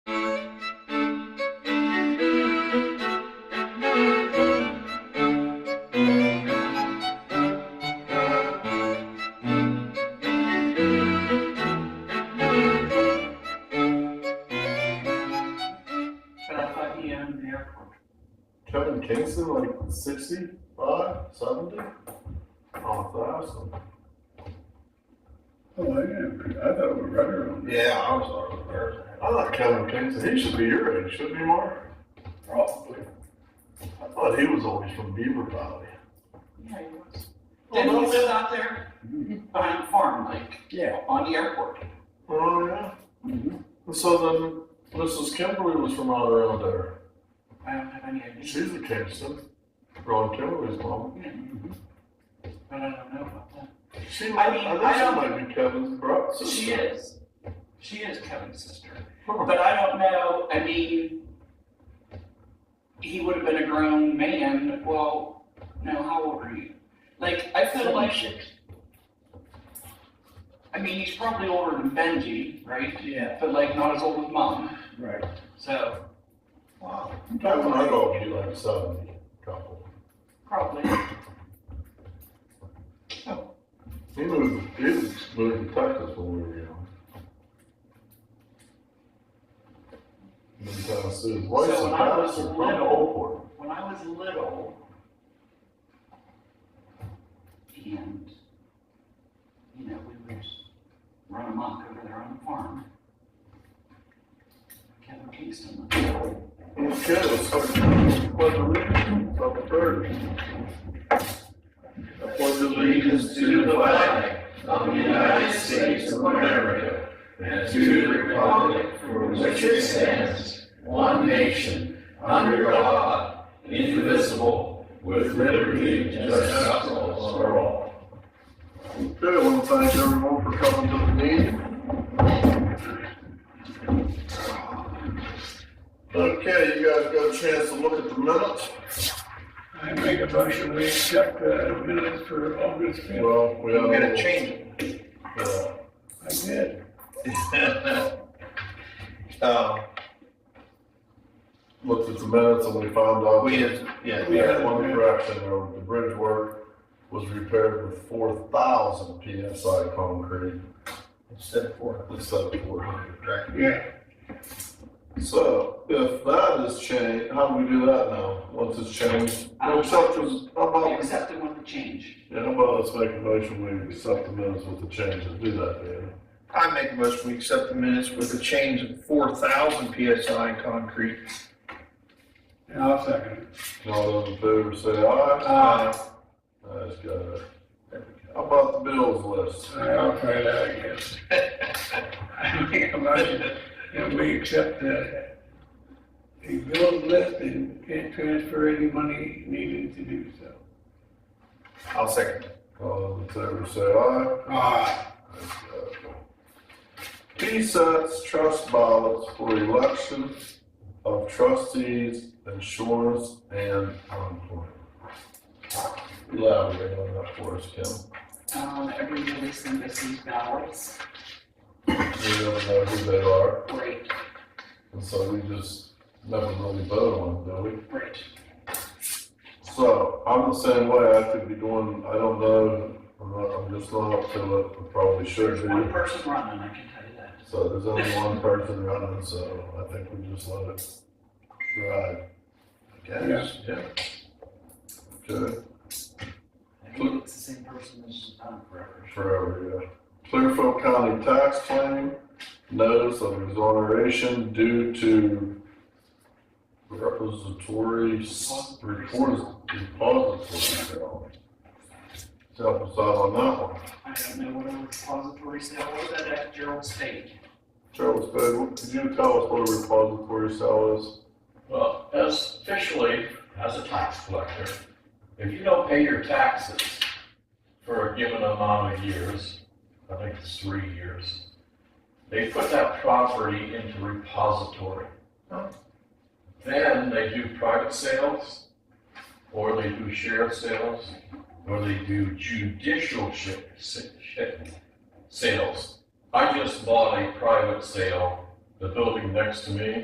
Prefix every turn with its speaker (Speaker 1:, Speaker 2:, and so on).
Speaker 1: end of E the airport.
Speaker 2: Kevin Kingston, like sixty-five, seventy? Oh,
Speaker 3: Oh, I am, I thought we were right around
Speaker 2: thousand.
Speaker 3: there.
Speaker 2: Yeah, I was already there. I thought Kevin Kingston, he should be your age, shouldn't he, Mark?
Speaker 3: Probably.
Speaker 2: I thought he was always from Beaver Valley. Oh,
Speaker 1: Yeah, he was. Didn't he live out there
Speaker 3: Mhm.
Speaker 1: behind the farm, like,
Speaker 3: Yeah.
Speaker 1: on the airport?
Speaker 2: Oh, yeah.
Speaker 3: Mhm.
Speaker 2: And so then Mrs. Kimberly was from out around there.
Speaker 1: I don't have any idea,
Speaker 2: She's a Kingston. Ron Kimberly's mom.
Speaker 1: but I don't know about that.
Speaker 2: She,
Speaker 1: I
Speaker 2: might-
Speaker 1: mean,
Speaker 2: I
Speaker 1: I
Speaker 2: think she
Speaker 1: don't-
Speaker 2: might be Kevin's brother.
Speaker 1: She is, she is Kevin's sister.
Speaker 2: Huh.
Speaker 1: But I don't know, I mean, he would have been a grown man, well, now how old are you? Like, I feel like, I mean, he's probably older than Benji, right?
Speaker 3: Yeah,
Speaker 1: But like, not as old as mom,
Speaker 3: right.
Speaker 1: so. Wow.
Speaker 2: Back when I go, he like seventy, couple.
Speaker 1: Probably.
Speaker 2: He moved, he was moved to Texas when we were young. In Tennessee, why is
Speaker 1: So
Speaker 2: the
Speaker 1: when I was
Speaker 2: Patterson from
Speaker 1: little-
Speaker 2: Oldport?
Speaker 1: When I was little, and, you know, we would run amok over there on the farm. Kevin Kingston,
Speaker 2: And the kid was like, what the reason of the bird?
Speaker 4: for the allegiance to the flag of the United States of America and to the republic for which it stands, one nation, under God, indivisible, with liberty and justice for all.
Speaker 2: Okay, I want to thank everyone for coming to the meeting. Okay, you guys got a chance to look at the minutes?
Speaker 3: I make a motion, we accept the minutes for August fifth.
Speaker 2: Well, we have.
Speaker 5: I'm gonna change it.
Speaker 2: Yeah.
Speaker 3: I did.
Speaker 5: Um,
Speaker 2: looked at the minutes and we found out.
Speaker 5: we
Speaker 2: that
Speaker 5: have, yeah,
Speaker 2: We had one correction, or the bridge work was repaired with four thousand PSI concrete
Speaker 5: instead of four.
Speaker 2: instead of four hundred.
Speaker 3: Yeah,
Speaker 2: So if that is changed, how do we do that now, once it's changed?
Speaker 1: I don't-
Speaker 2: Except as, how
Speaker 1: we
Speaker 2: about,
Speaker 1: accepted with the change.
Speaker 2: yeah, how about let's make a motion, we accept the minutes with the changes, do that, Dan.
Speaker 5: I make a motion, we accept the minutes with a change of four thousand PSI concrete.
Speaker 3: and I'll second
Speaker 2: All those in favor say aye.
Speaker 5: Uh,
Speaker 2: That's good. How about the bills list?
Speaker 3: it. All right, I'll try that, I guess. I make a motion that we accept the, the bills list and can't transfer any money needed to do so.
Speaker 5: I'll second.
Speaker 2: All those in favor say aye.
Speaker 3: Ah,
Speaker 2: He sets trust ballots for election of trustees, insurance, and unemployment. Elaborate on that for us, Kim.
Speaker 1: Um, every year they send us these ballots,
Speaker 2: We don't know who they are,
Speaker 1: great,
Speaker 2: and so we just never really vote on them, do we?
Speaker 1: great.
Speaker 2: So, I'm the same way, I could be doing, I don't know, I'm not, I'm just not up to it, I probably should
Speaker 1: There's one
Speaker 2: be.
Speaker 1: person running, I can tell you that.
Speaker 2: So there's only one person running, so I think we just let it ride. I guess, yeah. Okay.
Speaker 1: I think it's the same person uh, that's done it forever.
Speaker 2: Forever, yeah. Clearfield County tax claim, notice of exoneration due to repository, s- report, depository. bill. Help us out on that one.
Speaker 1: I don't know what a repository sale was at that Gerald State.
Speaker 2: Charles, could you- could you tell us what a repository cell is?
Speaker 4: Well, as officially, as a tax collector, if you don't pay your taxes for a given amount of years, I think it's three years, they put that property into repository. Then they do private sales, or they do sheriff sales, or they do judicial shi- si- shi- sales. I just bought a private sale, the building next to me